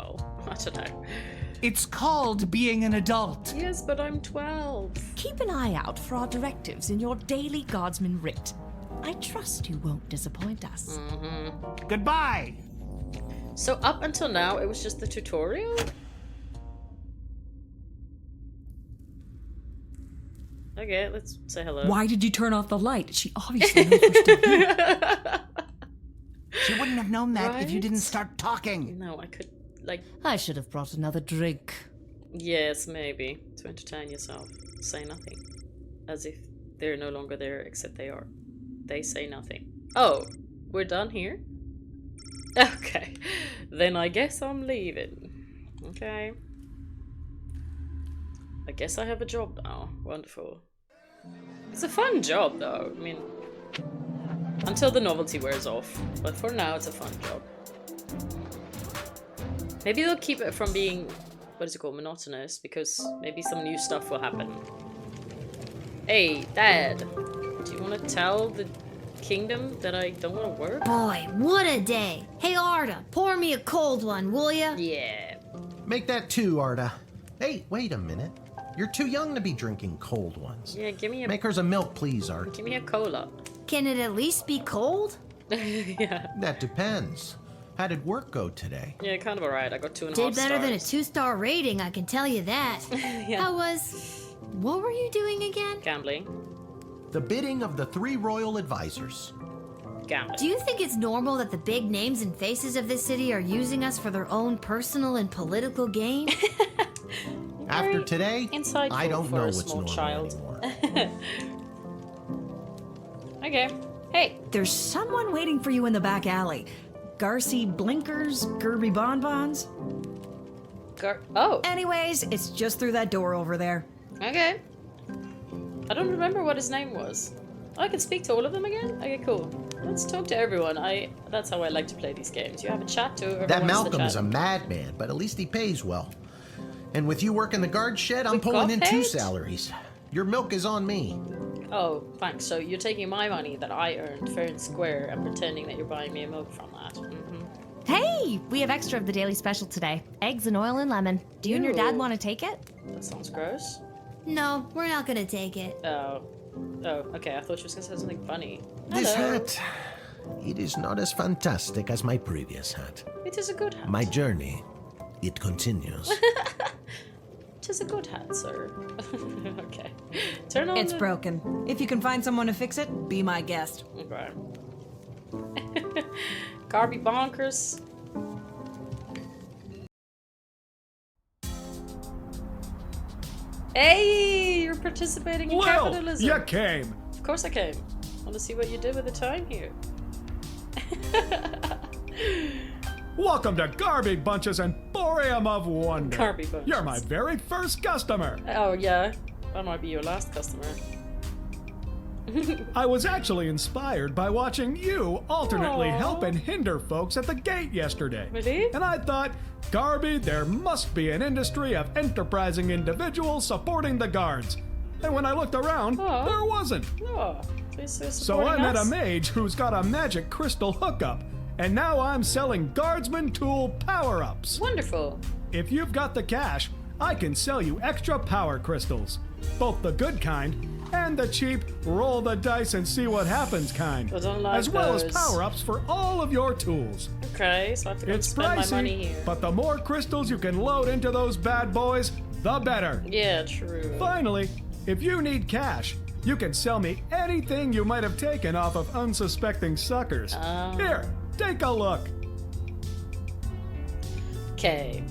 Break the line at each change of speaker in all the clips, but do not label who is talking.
to know.
It's called being an adult.
Yes, but I'm 12.
Keep an eye out for our directives in your daily guardsman writ. I trust you won't disappoint us.
Goodbye.
So up until now, it was just the tutorial? Okay, let's say hello.
Why did you turn off the light? She obviously knows we're still here.
She wouldn't have known that if you
Right?
didn't start talking.
No, I could, like,
I should have brought another drink.
yes, maybe, to entertain yourself. Say nothing. As if they're no longer there, except they are. They say nothing. Oh, we're done here? Okay. Then I guess I'm leaving. Okay. I guess I have a job now. Wonderful. It's a fun job, though. I mean, until the novelty wears off. But for now, it's a fun job. Maybe they'll keep it from being, what is it called, monotonous, because maybe some new stuff will happen. Hey, Dad, do you want to tell the kingdom that I don't want to work?
Boy, what a day. Hey, Arda, pour me a cold one, will ya?
Yeah.
Make that two, Arda. Hey, wait a minute. You're too young to be drinking cold ones.
Yeah, give me a
Make hers a milk, please, Art.
give me a cola.
Can it at least be cold?
yeah.
That depends. How did work go today?
Yeah, kind of alright. I got two and a half
Did better than a
stars.
two star rating, I can tell you that.
Yeah.
How was. What were you doing again?
Gambling.
The bidding of the three royal advisors.
Gambling.
Do you think it's normal that the big names and faces of this city are using us for their own personal and political gain?
After
Very
today,
insightful
I don't
for
know
a
what's
small
normal
child.
anymore.
okay. Hey.
There's someone waiting for you in the back alley. Garcy blinkers, Gerby bonbons.
Gar- oh.
Anyways, it's just through that door over there.
Okay. I don't remember what his name was. Oh, I can speak to all of them again. Okay, cool. Let's talk to everyone. I. That's how I like to play these games. You have a chat to whoever
That
wants to
Malcolm is a
chat.
madman, but at least he pays well. And with you working the guard shed, I'm
We
pulling
got
in two
paid?
salaries. Your milk is on me.
Oh, thanks. So you're taking my money that I earned fair and square and pretending that you're buying me a milk from that. hmm
Hey, we have extra of the daily special today eggs and oil and lemon. Do you and your dad
Ew.
want to take it?
That sounds gross.
no, we're not gonna take it.
Oh. Oh, okay. I thought she was gonna say something funny.
This
Hello.
hat, it is not as fantastic as my previous hat.
It is a good hat.
My journey, it continues.
It is a good hat, sir. okay. Turn on
It's
the-
broken. If you can find someone to fix it, be my guest.
Okay. Garby bonkers. Hey, you're participating in
Well,
capitalism.
you came.
Of course I came. Want to see what you did with the time here?
Welcome to Garby Bunches and Boreum of Wonder.
Garby Bunches.
You're my very first customer.
Oh yeah, that might be your last customer.
I was actually inspired by watching you alternately
Aw.
help and hinder folks at the gate yesterday.
Really?
And I thought, Garby, there must be an industry of enterprising individuals supporting the guards. And when I looked around,
Aw.
there wasn't.
Oh, this is
So I
supporting
met a
us?
mage who's got a magic crystal hookup, and now I'm selling guardsman tool power ups.
Wonderful.
If you've got the cash, I can sell you extra power crystals. Both the good kind and the cheap roll the dice and see what happens kind.
I don't like
as well
those.
as power ups for all of your tools.
Okay, so I have to go
It's
spend
pricey,
my money here.
but the more crystals you can load into those bad boys, the better.
yeah, true.
Finally, if you need cash, you can sell me anything you might have taken off of unsuspecting suckers.
Oh.
Here, take a look.
Okay.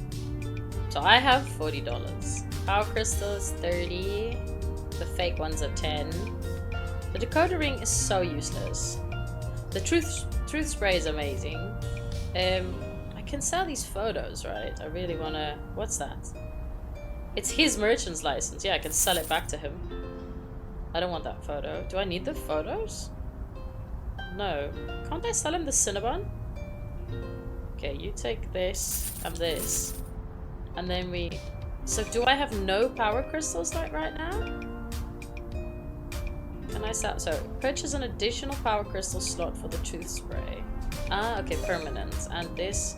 So I have forty dollars. Power crystals thirty. The fake ones are ten. The decoder ring is so useless. The truth truth spray is amazing. Um, I can sell these photos, right? I really wanna. What's that? It's his merchant's license. Yeah, I can sell it back to him. I don't want that photo. Do I need the photos? No. Can't I sell him the Cinnabon? Okay, you take this and this. And then we. So, do I have no power crystals like right now? Can I sell? So, purchase an additional power crystal slot for the tooth spray. Ah, okay, permanent. And this